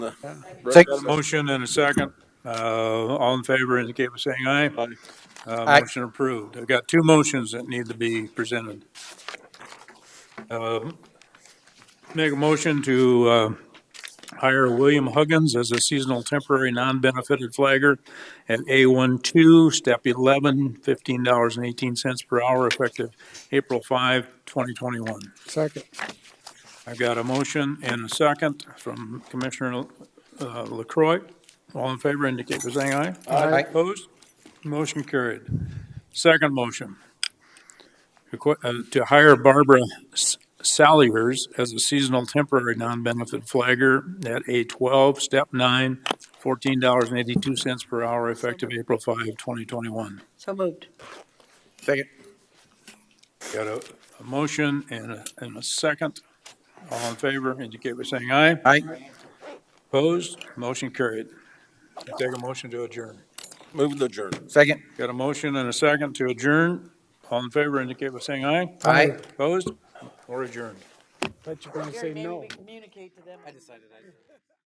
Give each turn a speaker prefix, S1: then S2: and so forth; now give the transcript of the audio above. S1: Take-
S2: Brett, got a motion?
S3: Motion and a second. Uh, all in favor indicate by saying aye.
S2: Aye.
S3: Uh,
S1: Aye.
S3: motion approved. I've got two motions that need to be presented. Uh, Make a motion to, uh, hire William Huggins as a seasonal temporary non-benefited flagger at A12, step 11, $15.18 per hour effective April 5, 2021.
S1: Second.
S3: I've got a motion and a second from Commissioner uh, LaCroy. All in favor indicate by saying aye.
S1: Aye.
S3: Opposed? Motion carried. Second motion, requ- uh, to hire Barbara S- Saliers as a seasonal temporary non-benefit flagger at A12, Step 9, $14.82 per hour effective April 5, 2021.
S4: So moved.
S1: Second.
S3: Got a a motion and a- and a second. All in favor indicate by saying aye.
S1: Aye.
S3: Opposed? Motion carried. I Take a motion to adjourn.
S2: Move to adjourn.
S1: Second.
S3: Got a motion and a second to adjourn. All in favor indicate by saying aye.
S1: Aye.
S3: Opposed? Or adjourned?
S5: But you're gonna say no.
S4: communicate to them.